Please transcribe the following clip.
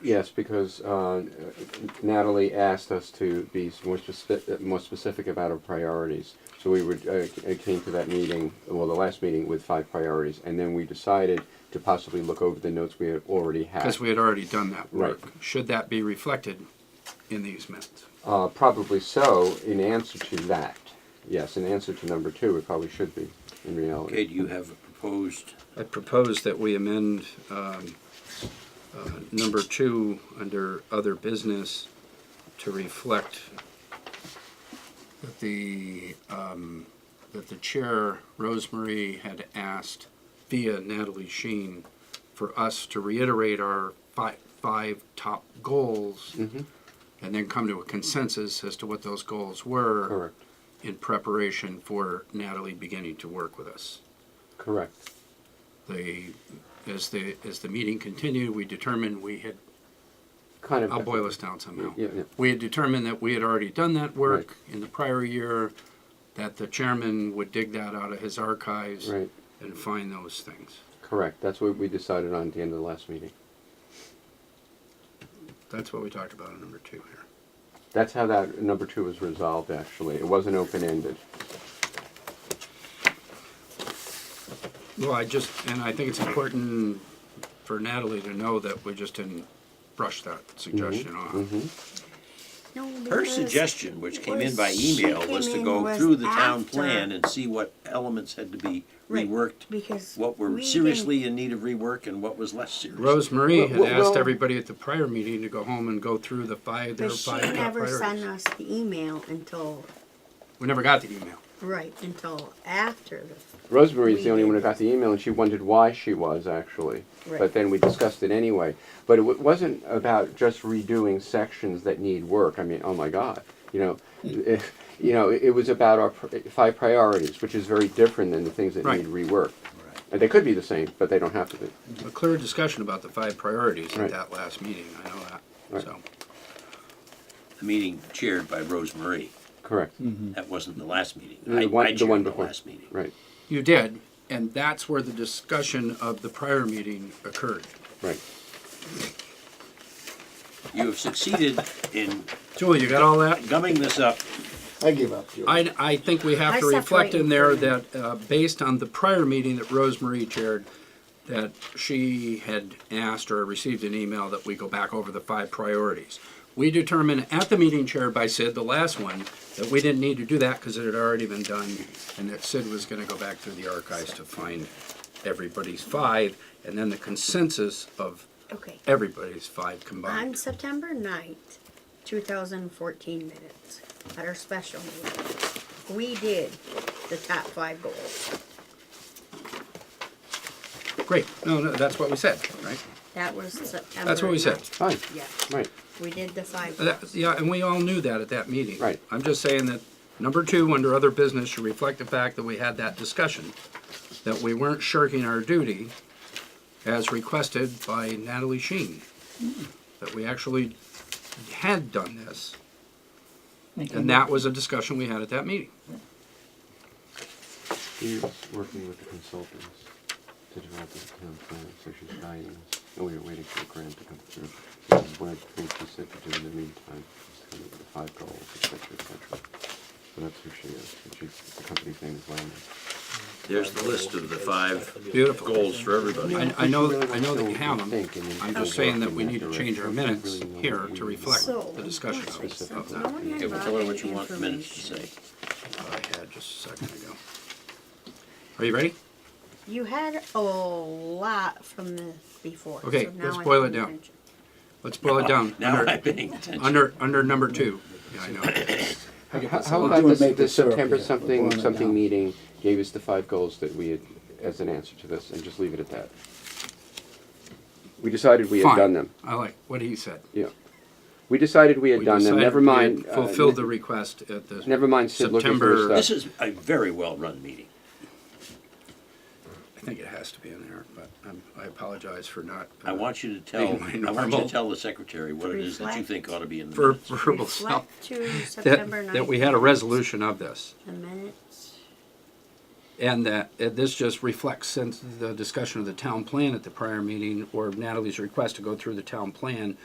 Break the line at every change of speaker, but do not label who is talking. Yes, because uh, Natalie asked us to be more specific, more specific about our priorities. So we were, uh, came to that meeting, well, the last meeting with five priorities, and then we decided to possibly look over the notes we had already had.
Because we had already done that work.
Right.
Should that be reflected in these minutes?
Uh, probably so, in answer to that. Yes, in answer to number two, it probably should be, in
Okay,
reality.
do you have a proposed,
I propose that we amend um, uh, number two under other business to reflect that the, um, that the chair, Rosemary, had asked via Natalie Sheen for us to reiterate our five, five top goals
Mm-hmm.
and then come to a consensus as to what those goals were
Correct,
in preparation for Natalie beginning to work with us
correct.
the, as the, as the meeting continued, we determined we had,
Kind of.
I'll boil this down somehow.
Yeah, yeah.
We had determined that we had already done that work in the prior year, that the chairman would dig that out of his archives
Right,
and find those things.
correct. That's what we decided on at the end of the last meeting.
That's what we talked about in number two here.
That's how that number two was resolved, actually. It wasn't open-ended.
Well, I just, and I think it's important for Natalie to know that we just didn't brush that
Mm-hmm.
suggestion off.
No,
her
because-
suggestion, which came in by
was-
email,
she
was to
came in
go
was
through the town
after-
plan and see what elements had to be
Right,
reworked,
Because.
what were
we
seriously in need of rework and what was less serious.
Rosemary had
Well, well,
asked
well-
everybody at the prior meeting to go home and go through the five,
didn't-
their
But she
five top
never sent
priorities.
us the email until,
We never got the email.
right, until after the,
Rosemary's
We
the only one who
did.
got the email, and she wondered why she was actually. But
Right.
then we discussed it anyway. But it w- wasn't about just redoing sections that need work. I mean, oh my God, you know,
Hmm.
if, you know, it was about our pr- five priorities, which is very different than the things that
Right.
need rework. And they could be the same, but they don't have to be.
a clear discussion about the five priorities
Right.
at that last meeting, I know that,
Right.
so.
The meeting chaired by Rose Marie,
Correct.
Mm-hmm.
that wasn't the last meeting.
Hmm. The
I-
one-
I
the one
chaired the
before.
last meeting.
Right.
You did, and that's where the discussion of the prior meeting occurred.
Right.
You have succeeded in
Julie, you got all that?
gumming this up.
I give up, Julie.
I, I think we have
I
to reflect
separate
in there
from
that, uh, based on the prior meeting that Rosemary chaired, that she had asked or received an email that we go back over the five priorities. We determined at the meeting chaired by Sid, the last one, that we didn't need to do that because it had already been done, and that Sid was gonna go back through the archives to find everybody's five, and then the consensus of
okay,
everybody's five
on
combined.
September ninth, two thousand fourteen minutes, at our special meeting, we did the top five goals.
Great, no, no, that's what we said, right?
That was September.
That's what we said.
9th.
Fine.
Yeah,
Right.
we did the five.
That-
goals.
Yeah, and we all knew that at that meeting.
Right.
I'm just saying that number two, under other business, should reflect the fact that we had that discussion, that we weren't shirking our duty as requested by Natalie Sheen, that we actually had done this. And that was a discussion we had at that meeting.
She's working with the consultants to develop the town plan, so she's guiding us. And we were waiting for a grant to come through. This is what I think she said to do in the meantime, is to come up with the five goals, et cetera, et cetera. So that's who she is. And she's, the company's name is Landis.
There's the list of the five
Beautiful.
goals for everybody.
I, I know, I know that you have them. I'm just saying that we need to change our minutes here to reflect
So,
the discussion
let's see, so
of
no
that.
one had
Okay, well,
brought
tell her what
any
you want the minutes to say.
information.
I had just a second ago. Are you ready?
You had a lot from the before.
Okay,
so now
let's
I'm
boil it
paying
down.
attention.
Let's boil it down.
Now
Under-
I'm paying attention.
Under, under number two. Yeah, I know.
How how
We'll
about
do it,
this,
make
this
it syrup
September
here. We're
something,
boiling it
something
down.
meeting gave us the five goals that we had, as an answer to this, and just leave it at that? We decided we had
Fine.
done them.
I like what he said.
Yeah. We decided we had
We
done them.
decided
Never
we had
mind. uh,
Fulfilled the request at the.
Never mind Sid looking for his
September-
stuff.
This is a very well-run meeting.
I think it has to be in there, but I'm- I apologize for not. uh,
I want you to tell,
Being my
I want you
normal-
to tell the secretary what it is that you think ought to be in the
For
minutes.
verbal self,
Reflect to
that,
September 9th.
that we had a resolution of this.
The minutes.
And that, uh, this just reflects since the discussion of the town plan at the prior meeting, or Natalie's request to go through the town plan,